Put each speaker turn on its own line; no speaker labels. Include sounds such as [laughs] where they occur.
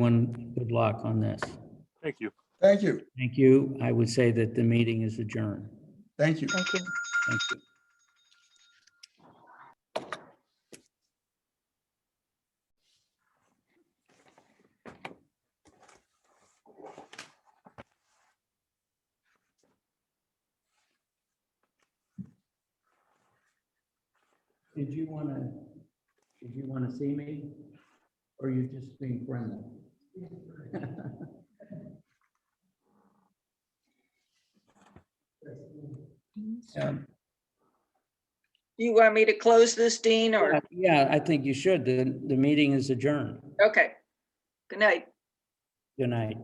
Everyone, good luck on this.
Thank you.
Thank you.
Thank you. I would say that the meeting is adjourned.
Thank you.
Thank you.
Thank you. Did you want to, did you want to see me? Or you just being friendly? [laughs] Um,
You want me to close this, Dean,
Uh,
or,
Yeah, I think you should. The, the meeting is adjourned.
okay. Good night.
Good night.